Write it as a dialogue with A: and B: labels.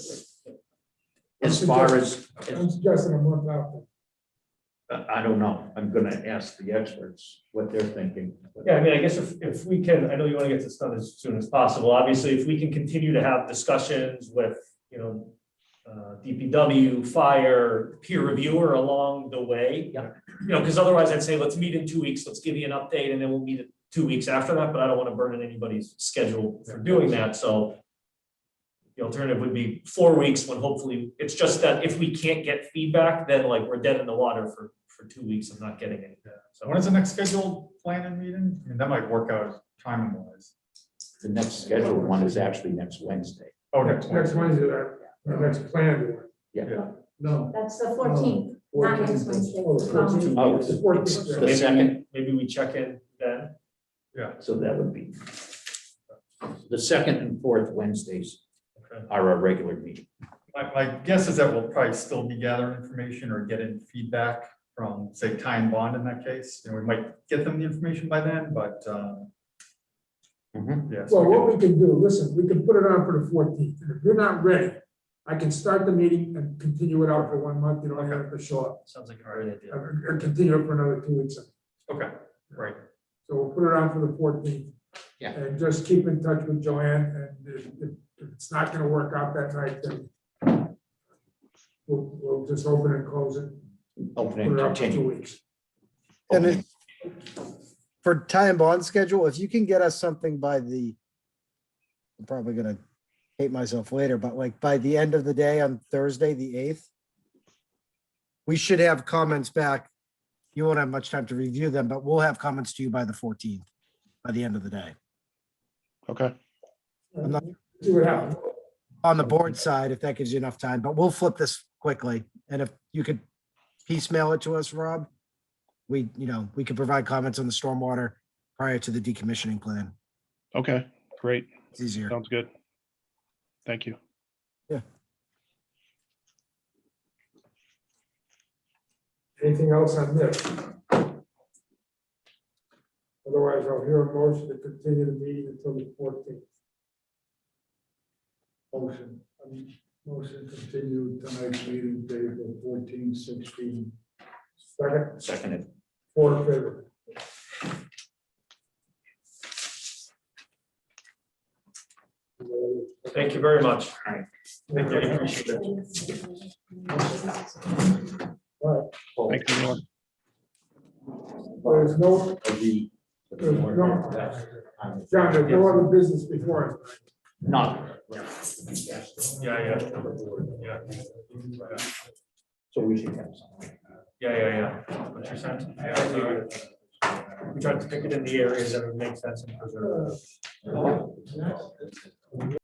A: as far as,
B: I'm suggesting a month after.
A: Uh, I I don't know, I'm gonna ask the experts what they're thinking. but-
C: Yeah, I mean, I guess if, if we can, I know you want to get this done as soon as possible. Obviously, if we can continue to have discussions with, you know, uh, DPW, fire, peer reviewer along the way. Yeah. You know, because otherwise I'd say, let's meet in two weeks, let's give you an update, and then we'll meet two weeks after that, but I don't want to burden anybody's schedule for doing that, so the alternative would be four weeks when hopefully, it's just that if we can't get feedback, then like we're dead in the water for, for two weeks of not getting anything. So
D: When is the next scheduled planning meeting? I mean, that might work out timing wise.
A: The next scheduled one is actually next Wednesday.
D: Oh, next
B: Next next
D: Wednesday.
B: Wednesday, that, or next planned one.
D: Yeah.
B: No.
E: That's the fourteenth, not next Wednesday.
B: Oh,
E: Um,
A: Oh, it's
B: Fourteenth.
A: the second,
C: Maybe we check in then.
A: so that would be. The second and fourth Wednesdays
C: Okay.
A: are our regular meeting.
D: My, my guess is that we'll probably still be gathering information or getting feedback from, say, Ty and Bond in that case. And we might get them the information by then, but, um,
A: Mhm.
D: yeah. so
B: Well,
D: we
B: what we can do, listen, we can put it on for the fourteenth, and if you're not ready, I can start the meeting and continue it out for one month, you don't have to show up. uh,
C: Sounds like a great idea.
B: Or or continue it for another two weeks. So
D: can- Okay, right.
B: we'll put it on for the fourteenth.
A: Yeah.
B: And just keep in touch with Joanne, and if, if if it's not gonna work out that night, then we'll, we'll just open and close it,
A: Open
B: put
A: and
B: it out for two
A: continue.
B: weeks.
F: And it, for tie and bond schedule, if you can get us something by the, I'm probably gonna hate myself later, but like by the end of the day on Thursday, the eighth, we should have comments back. You won't have much time to review them, but we'll have comments to you by the fourteenth, by the end of the day.
G: Okay,
F: I'm not-
B: See what happens.
F: On the board side, if that gives you enough time, but we'll flip this quickly. And if you could piecemeal it to us, Rob, we, you know, we could provide comments on the stormwater prior to the decommissioning plan.
G: okay, great.
F: It's easier.
G: Sounds good. Thank you.
B: Anything else on this? Otherwise, I'll hear a motion to continue the meeting until the fourteenth. Motion, um, motion continue tonight's meeting day for fourteen sixteen. Second,
A: Seconded.
B: four in favor.
C: Thank you very much.
B: Thank
C: you. I appreciate it.
G: Thanks, everyone.
B: There's no,
A: Of the-
B: there's no, John, there's no other business before us.
A: None.
C: Yeah, yeah, yeah,
A: So we should have something.
C: yeah, yeah, yeah. What you're saying. I agree with it. We tried to pick it in the areas that would make sense and preserve. it.